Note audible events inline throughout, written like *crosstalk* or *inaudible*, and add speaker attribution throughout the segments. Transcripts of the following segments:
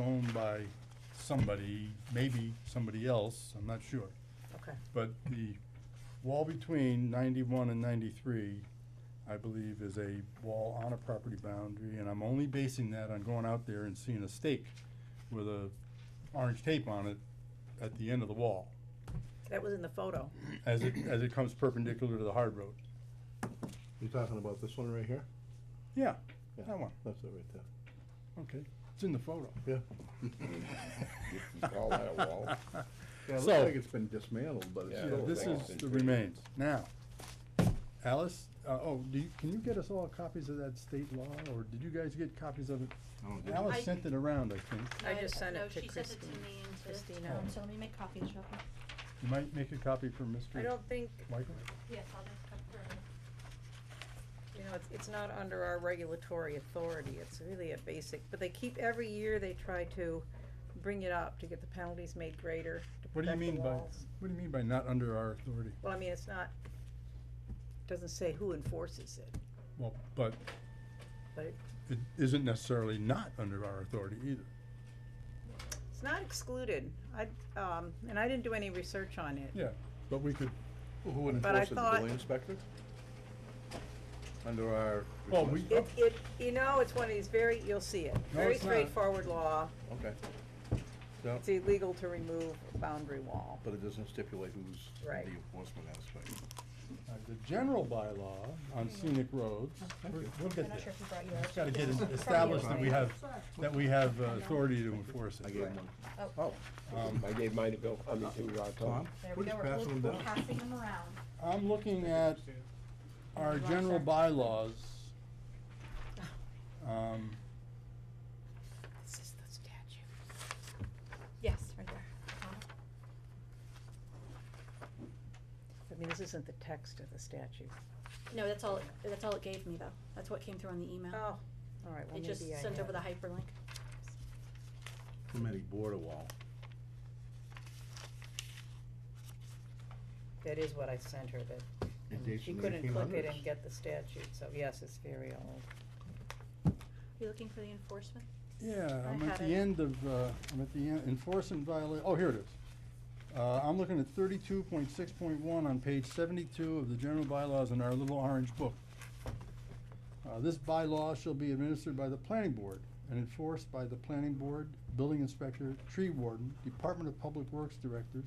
Speaker 1: owned by somebody, maybe somebody else, I'm not sure.
Speaker 2: Okay,
Speaker 1: But the wall between ninety-one and ninety-three, I believe, is a wall on a property boundary, and I'm only basing that on going out there and seeing a stake with a orange tape on it at the end of the wall,
Speaker 2: that was in the photo.
Speaker 1: as it, as it comes perpendicular to the hard road.
Speaker 3: You're talking about this one right here?
Speaker 1: Yeah,
Speaker 3: Yeah.
Speaker 1: that one,
Speaker 3: That's it right there.
Speaker 1: okay, it's in the photo.
Speaker 3: Yeah.
Speaker 4: *laughs* You can call that a wall.
Speaker 1: *laughs*
Speaker 3: Yeah, it
Speaker 1: So-
Speaker 3: looks like it's been dismantled, but it's
Speaker 4: Yeah,
Speaker 1: Yeah,
Speaker 3: still. a
Speaker 1: this
Speaker 3: wall.
Speaker 1: is the remains. Now, Alice, uh, oh, do you, can you get us all copies of that state law, or did you guys get copies of it?
Speaker 5: I-
Speaker 1: Alice sent it around, I think.
Speaker 2: I just sent it to
Speaker 5: No, she sent it to
Speaker 2: Christine.
Speaker 5: me and to
Speaker 2: Christina.
Speaker 5: Tom, so let me make copies real quick.
Speaker 1: You might make a copy for
Speaker 2: I
Speaker 1: Mr.
Speaker 2: don't think,
Speaker 1: Michael?
Speaker 5: Yes, I'll just come through.
Speaker 2: you know, it's, it's not under our regulatory authority, it's really a basic, but they keep, every year they try to bring it up to get the penalties made greater, to
Speaker 1: What do you
Speaker 2: protect the
Speaker 1: mean by,
Speaker 2: walls.
Speaker 1: what do you mean by not under our authority?
Speaker 2: Well, I mean, it's not, doesn't say who enforces it,
Speaker 1: Well, but
Speaker 2: but it,
Speaker 1: it isn't necessarily not under our authority either.
Speaker 2: it's not excluded. I, um, and I didn't do any research on it.
Speaker 1: Yeah, but we could,
Speaker 3: Well, Who would
Speaker 2: But I
Speaker 3: enforce it, the
Speaker 2: thought-
Speaker 3: building inspector? Under our.
Speaker 1: Well, we-
Speaker 3: request.
Speaker 2: It, it, you know, it's one of these very, you'll see it,
Speaker 1: No,
Speaker 2: very
Speaker 1: it's not.
Speaker 2: straightforward law.
Speaker 3: Okay. So,
Speaker 2: It's illegal to remove a boundary wall.
Speaker 3: but it doesn't stipulate who's the
Speaker 2: Right.
Speaker 3: enforcement aspect.
Speaker 1: uh, the general bylaw on scenic roads,
Speaker 3: Thank
Speaker 1: we're-
Speaker 3: you.
Speaker 1: we'll
Speaker 5: I'm
Speaker 1: get
Speaker 5: not
Speaker 1: there.
Speaker 5: sure if you brought yours.
Speaker 1: Just gotta get
Speaker 5: From
Speaker 1: it
Speaker 5: you,
Speaker 1: established that we
Speaker 5: right?
Speaker 1: have, that we have uh, authority to enforce it.
Speaker 3: I gave him one.
Speaker 4: Oh, um, I gave mine to Bill, I mean, to uh, Tom.
Speaker 5: There
Speaker 3: We're
Speaker 5: we
Speaker 3: just
Speaker 5: go, we're,
Speaker 3: passing them
Speaker 5: we're
Speaker 3: down.
Speaker 5: passing them *laughs* around.
Speaker 1: I'm looking at our general bylaws. Um,
Speaker 2: This is the statute.
Speaker 5: Yes, right there. Tom.
Speaker 2: I mean, this isn't the text of the statute.
Speaker 5: No, that's all, it- that's all it gave me though. That's what came through on the email.
Speaker 2: Oh, all right, well,
Speaker 5: It
Speaker 2: maybe
Speaker 5: just
Speaker 2: I
Speaker 5: sent
Speaker 2: have-
Speaker 5: over the hyperlink.
Speaker 3: Implementing border wall.
Speaker 2: That is what I sent her, that
Speaker 3: It
Speaker 2: and
Speaker 3: dates
Speaker 2: she
Speaker 3: from the
Speaker 2: couldn't click it
Speaker 3: 1800s.
Speaker 2: and get the statute, so yes, it's very old.
Speaker 5: You looking for the enforcement?
Speaker 1: Yeah,
Speaker 2: I
Speaker 1: I'm at
Speaker 2: had
Speaker 1: the
Speaker 2: it.
Speaker 1: end of, uh, I'm at the end, enforcement viola, oh, here it is. Uh, I'm looking at thirty-two point six point one on page seventy-two of the general bylaws in our little orange book. Uh, this bylaw shall be administered by the planning board and enforced by the planning board, building inspector, tree warden, Department of Public Works directors,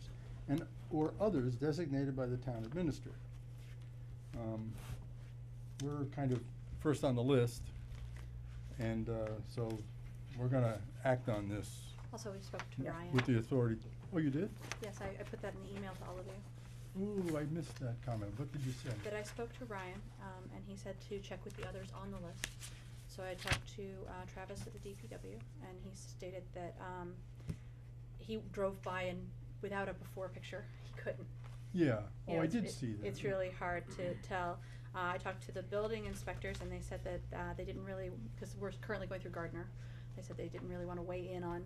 Speaker 1: and, or others designated by the town administrator. Um, we're kind of first on the list, and, uh, so we're gonna act on this
Speaker 5: Also, we spoke to
Speaker 2: Yeah.
Speaker 5: Ryan.
Speaker 1: with the authority. Oh, you did?
Speaker 5: Yes, I, I put that in the email to all of you.
Speaker 1: Ooh, I missed that comment. What did you say?
Speaker 5: that I spoke to Ryan, um, and he said to check with the others on the list. So I talked to, uh, Travis at the DPW, and he stated that, um, he drove by and without a before picture, he couldn't.
Speaker 1: Yeah,
Speaker 5: You
Speaker 1: oh,
Speaker 5: know,
Speaker 1: I
Speaker 5: it's-
Speaker 1: did
Speaker 5: it-
Speaker 1: see that.
Speaker 5: It's really hard to tell. Uh, I talked to the building inspectors, and they said that, uh, they didn't really, because we're currently going through Gardner, they said they didn't really wanna weigh in on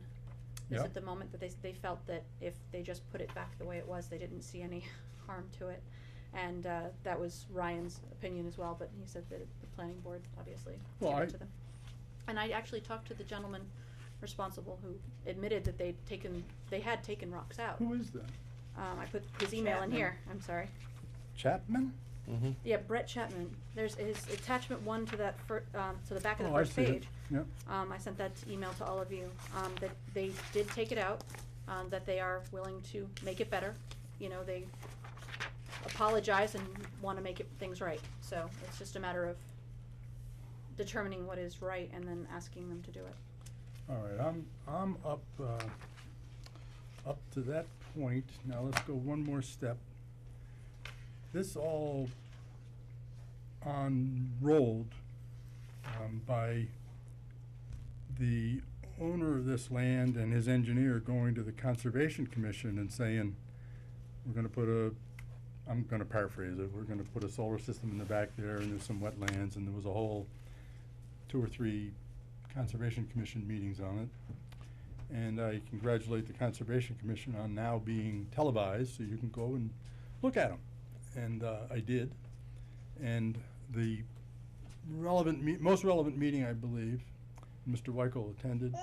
Speaker 5: this
Speaker 1: Yeah.
Speaker 5: at the moment, that they, s- they felt that if they just put it back the way it was, they didn't see any *laughs* harm to it. And, uh, that was Ryan's opinion as well, but he said that the planning board obviously
Speaker 1: Well,
Speaker 5: gave
Speaker 1: I-
Speaker 5: it to them. And I actually talked to the gentleman responsible who admitted that they'd taken, they had taken rocks out.
Speaker 1: Who is that?
Speaker 5: Um, I put his email in
Speaker 2: Chapman.
Speaker 5: here, I'm sorry.
Speaker 1: Chapman?
Speaker 3: Mm-hmm.
Speaker 5: Yeah, Brett Chapman. There's his attachment one to that fir- um, to the back of the
Speaker 1: Oh, I
Speaker 5: first
Speaker 1: see it.
Speaker 5: page.
Speaker 1: Yep.
Speaker 5: Um, I sent that email to all of you, um, that they did take it out, um, that they are willing to make it better. You know, they apologize and wanna make it, things right, so it's just a matter of determining what is right and then asking them to do it.
Speaker 1: All right, I'm, I'm up, uh, up to that point. Now let's go one more step. This all unrolled, um, by the owner of this land and his engineer going to the Conservation Commission and saying, we're gonna put a, I'm gonna paraphrase it, we're gonna put a solar system in the back there and there's some wetlands and there was a whole two or three Conservation Commission meetings on it. And I congratulate the Conservation Commission on now being televised, so you can go and look at them. And uh, I did. And the relevant, me- most relevant meeting, I believe, Mr. Weichel attended,